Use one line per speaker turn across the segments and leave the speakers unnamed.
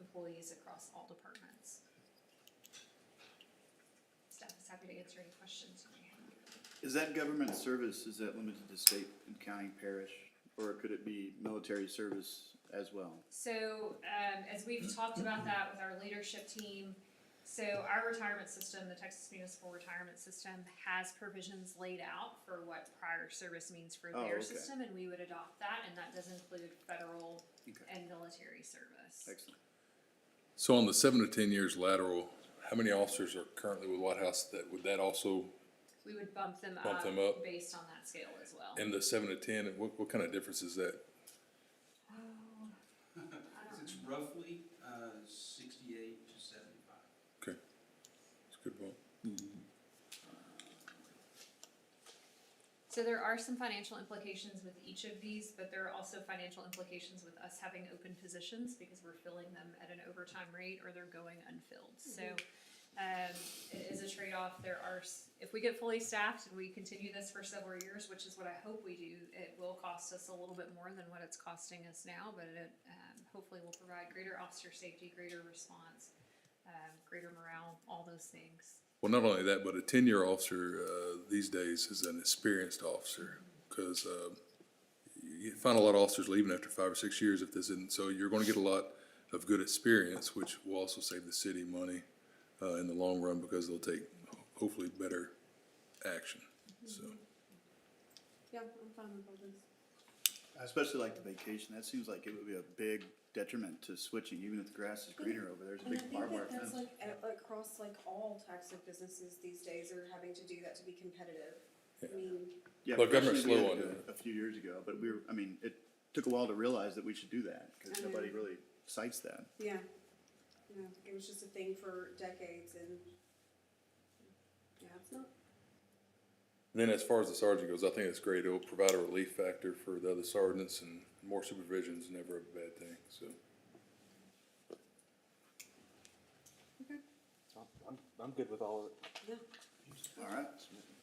employees across all departments. Staff is happy to answer any questions you may have.
Is that government service, is that limited to state and county parish, or could it be military service as well?
So, um, as we've talked about that with our leadership team, so our retirement system, the Texas Municipal Retirement System, has provisions laid out for what prior service means for
Oh,
their
okay.
system, and we would adopt that, and that does include federal
Okay.
and military service.
Excellent.
So on the seven to ten years lateral, how many officers are currently with White House that, would that also,
We would bump them
Bump
up
them up.
based on that scale as well.
in the seven to ten, and what, what kind of difference is that?
Oh, I don't
It's
know.
roughly uh, sixty-eight to seventy-five.
Okay, it's a good point.
So there are some financial implications with each of these, but there are also financial implications with us having open positions because we're filling them at an overtime rate or they're going unfilled. So um, it is a trade-off. There are, s- if we get fully staffed and we continue this for several years, which is what I hope we do, it will cost us a little bit more than what it's costing us now, but it um, hopefully will provide greater officer safety, greater response, um, greater morale, all those things.
Well, not only that, but a ten-year officer, uh, these days is an experienced officer, cause, uh, you find a lot of officers leaving after five or six years if this isn't, so you're gonna get a lot of good experience, which will also save the city money, uh, in the long run, because they'll take hopefully better action, so.
Yeah, I'm fine with all this.
I especially like the vacation, that seems like it would be a big detriment to switching, even if the grass is greener over there, there's a
And I
big
think
barbed wire
that that's
fence.
like, a- across like all types of businesses these days are having to do that to be competitive. I mean,
Yeah,
Well, government's
personally, we
slow
had
on
to do
it.
it A few years ago, but we were, I mean, it took a while to realize that we should do that, cause
I know.
nobody really cites that.
yeah, you know, it was just a thing for decades and, yeah, it's not,
Then as far as the sergeant goes, I think it's great. It'll provide a relief factor for the other sergeants and more supervision is never a bad thing, so.
I'm, I'm, I'm good with all of it.
yeah.
Alright,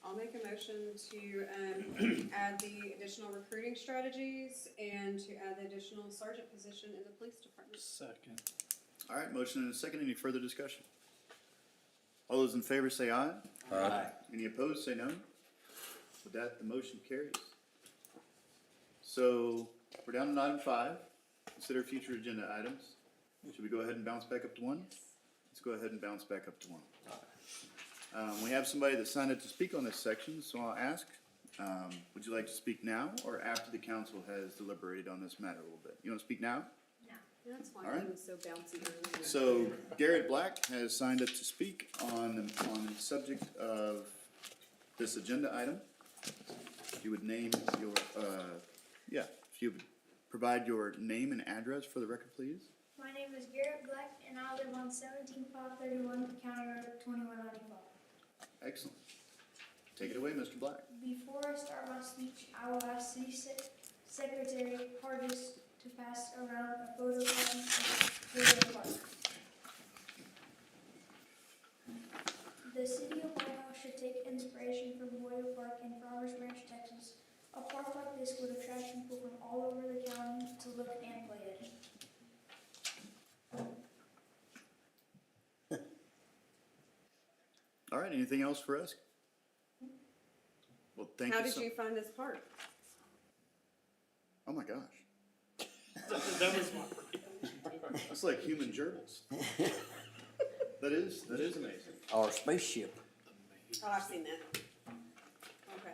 I'll make a motion to, um, add the additional recruiting strategies and to add the additional sergeant position in the police department.
Second.
alright, motion and a second, any further discussion? All those in favor say aye. Any opposed, say no. With that, the motion carries. So we're down to item five, consider future agenda items. Should we go ahead and bounce back up to one? Let's go ahead and bounce back up to one. Um, we have somebody that signed up to speak on this section, so I'll ask, um, would you like to speak now or after the council has deliberated on this matter a little bit? You wanna speak now?
That's why
All right.
it was so bouncy earlier.
So Garrett Black has signed up to speak on, on the subject of this agenda item. If you would name your, uh, yeah, if you would provide your name and address for the record, please.
My name is Garrett Black, and I live on seventeen five thirty-one, County Road twenty-one ninety-five.
Excellent. Take it away, Mr. Black.
Before I start my speech, I will ask City Sec- Secretary Hardis to pass around a photo card of Gateway Park. The city of White House should take inspiration from Boyle Park in Farmers Branch, Texas. A park like this would attract people from all over the county to look and play at it.
All right, anything else for us? Well, thank
How
you
did
so,
you find this part?
oh my gosh. It's like human gerbils. That is, that is amazing.
Our spaceship.
Oh, I've seen that. Okay.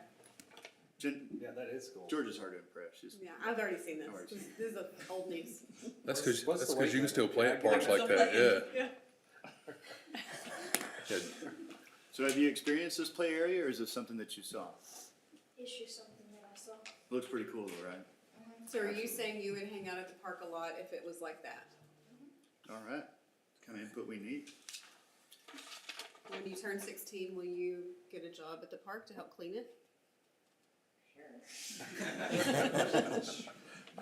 Jen,
Yeah, that is cool.
George is hard to impress, she's
Yeah, I've already seen this.
Already
This, this is old news.
That's cause,
What's
that's
the
'cause you can
weight
still play at
limit?
parks like that, yeah. Yeah.
So have you experienced this play area or is this something that you saw?
It's just something that I saw.
Looks pretty cool though, right?
So are you saying you would hang out at the park a lot if it was like that?
All right, kind of input we need.
When you turn sixteen, will you get a job at the park to help clean it?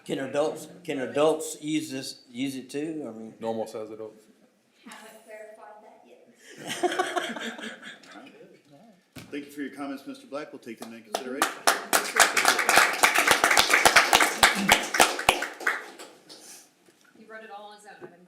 Can adults, can adults use this, use it too? I mean,
Normal size adult.
Haven't clarified that yet.
Thank you for your comments, Mr. Black. We'll take them into consideration.
He wrote it all on his own. I didn't